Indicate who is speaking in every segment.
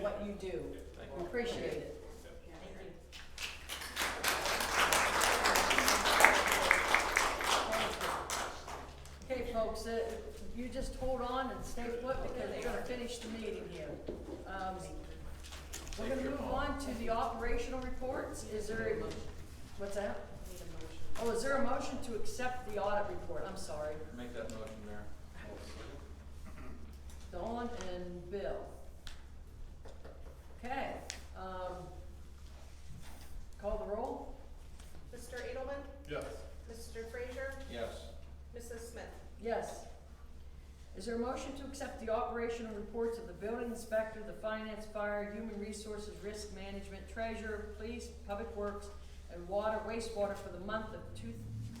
Speaker 1: what you do. We appreciate it. Okay, folks, uh, you just hold on and stay put because we're gonna finish the meeting here. Um, We're gonna move on to the operational reports. Is there a, what's that? Oh, is there a motion to accept the audit report? I'm sorry.
Speaker 2: Make that motion, Mayor.
Speaker 1: Dawn and Bill. Okay, um, call the roll?
Speaker 3: Mr. Edelman?
Speaker 4: Yes.
Speaker 3: Mr. Frazier?
Speaker 2: Yes.
Speaker 3: Mrs. Smith?
Speaker 1: Yes. Is there a motion to accept the operational reports of the building inspector, the finance, fire, human resources, risk management, treasurer, police, public works, and water, wastewater for the month of two,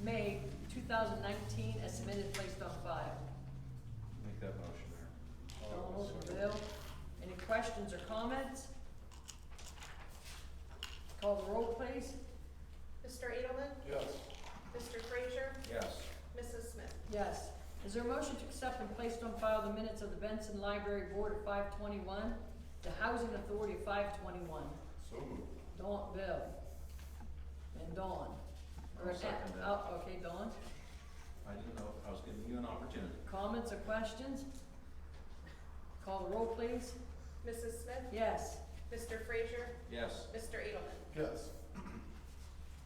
Speaker 1: May two thousand nineteen as submitted, placed on file?
Speaker 2: Make that motion, Mayor.
Speaker 1: Donald and Bill, any questions or comments? Call the roll, please.
Speaker 3: Mr. Edelman?
Speaker 4: Yes.
Speaker 3: Mr. Frazier?
Speaker 2: Yes.
Speaker 3: Mrs. Smith?
Speaker 1: Yes. Is there a motion to accept and place on file the minutes of the Benson Library Board of five twenty-one, the Housing Authority of five twenty-one?
Speaker 4: So moved.
Speaker 1: Dawn, Bill. And Dawn. Or
Speaker 2: I'll second that.
Speaker 1: Oh, okay, Dawn.
Speaker 2: I didn't know, I was giving you an opportunity.
Speaker 1: Comments or questions? Call the roll, please.
Speaker 3: Mrs. Smith?
Speaker 1: Yes.
Speaker 3: Mr. Frazier?
Speaker 2: Yes.
Speaker 3: Mr. Edelman?
Speaker 4: Yes.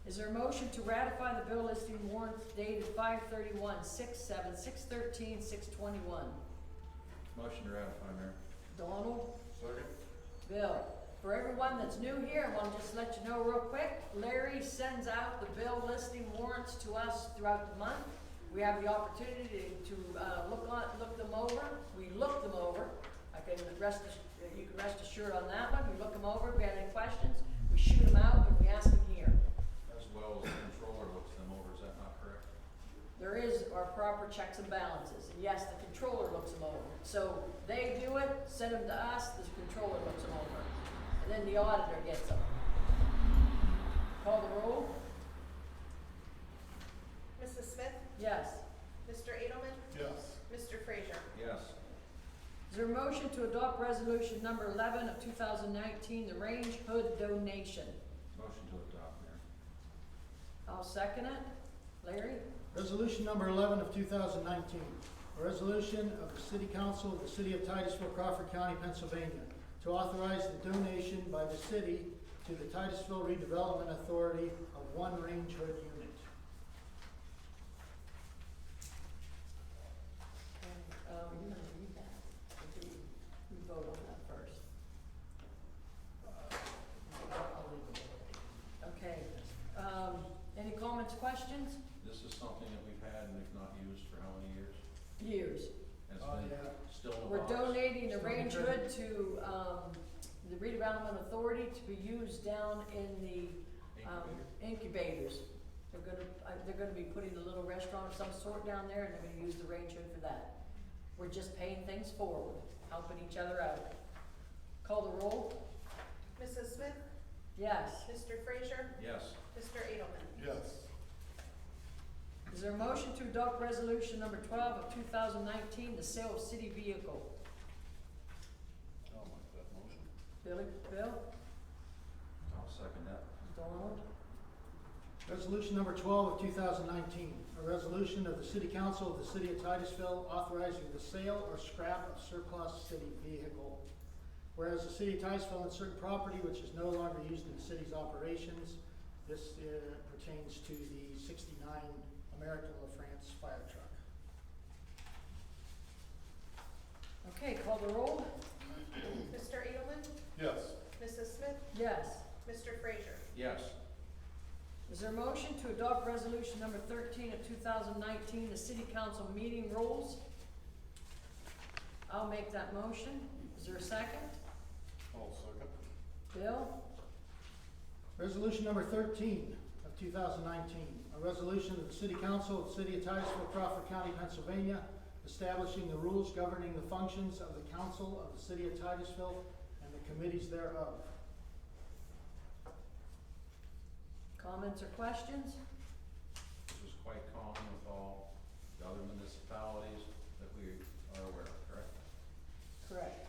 Speaker 1: Is there a motion to ratify the bill listing warrants dated five thirty-one, six seven, six thirteen, six twenty-one?
Speaker 2: Motion to ratify, Mayor.
Speaker 1: Donald?
Speaker 4: Second.
Speaker 1: Bill, for everyone that's new here, I want to just let you know real quick, Larry sends out the bill listing warrants to us throughout the month. We have the opportunity to, uh, look on, look them over, we look them over, I can rest, ass- you can rest assured on that one, we look them over, if we have any questions, we shoot them out and we ask them here.
Speaker 2: As well as the controller looks them over, is that not correct?
Speaker 1: There is our proper checks and balances, and yes, the controller looks them over, so they do it, send them to us, the controller looks them over, and then the auditor gets them. Call the roll?
Speaker 3: Mrs. Smith?
Speaker 1: Yes.
Speaker 3: Mr. Edelman?
Speaker 4: Yes.
Speaker 3: Mr. Frazier?
Speaker 2: Yes.
Speaker 1: Is there a motion to adopt resolution number eleven of two thousand nineteen, the Range Hood donation?
Speaker 2: Motion to adopt, Mayor.
Speaker 1: I'll second it. Larry?
Speaker 5: Resolution number eleven of two thousand nineteen, a resolution of the City Council of the City of Titusville, Crawford County, Pennsylvania, to authorize the donation by the city to the Titusville Redevelopment Authority of one range hood unit.
Speaker 1: Um, you gonna read that, or do we vote on that first? I'll leave it. Okay, um, any comments, questions?
Speaker 2: This is something that we've had and we've not used for how many years?
Speaker 1: Years.
Speaker 2: And It's
Speaker 5: Oh,
Speaker 2: been
Speaker 5: yeah.
Speaker 2: still in the
Speaker 1: We're
Speaker 2: box.
Speaker 1: donating the
Speaker 5: Still
Speaker 1: range
Speaker 5: in the
Speaker 1: hood to, um, the redevelopment authority to be used down in the um,
Speaker 2: Incubator.
Speaker 1: incubators. They're gonna, uh, they're gonna be putting a little restaurant of some sort down there, and they're gonna use the range hood for that. We're just paying things forward, helping each other out. Call the roll?
Speaker 3: Mrs. Smith?
Speaker 1: Yes.
Speaker 3: Mr. Frazier?
Speaker 2: Yes.
Speaker 3: Mr. Edelman?
Speaker 4: Yes.
Speaker 1: Is there a motion to adopt resolution number twelve of two thousand nineteen, the sale of city vehicle?
Speaker 4: I'll make that motion.
Speaker 1: Billy, Bill,
Speaker 2: I'll second that.
Speaker 1: Donald?
Speaker 5: Resolution number twelve of two thousand nineteen, a resolution of the City Council of the City of Titusville authorizing the sale or scrap of surplus city vehicle. Whereas the City of Titusville owns certain property which is no longer used in the city's operations, this uh, pertains to the sixty-nine American La France fire truck.
Speaker 1: Okay, call the roll?
Speaker 3: Mr. Edelman?
Speaker 4: Yes.
Speaker 3: Mrs. Smith?
Speaker 1: Yes.
Speaker 3: Mr. Frazier?
Speaker 2: Yes.
Speaker 1: Is there a motion to adopt resolution number thirteen of two thousand nineteen, the city council meeting rules? I'll make that motion. Is there a second?
Speaker 4: I'll second.
Speaker 1: Bill?
Speaker 5: Resolution number thirteen of two thousand nineteen, a resolution of the City Council of the City of Titusville, Crawford County, Pennsylvania, establishing the rules governing the functions of the Council of the City of Titusville and the committees thereof.
Speaker 1: Comments or questions?
Speaker 2: This is quite common with all the other municipalities that we are aware of, correct?
Speaker 1: Correct.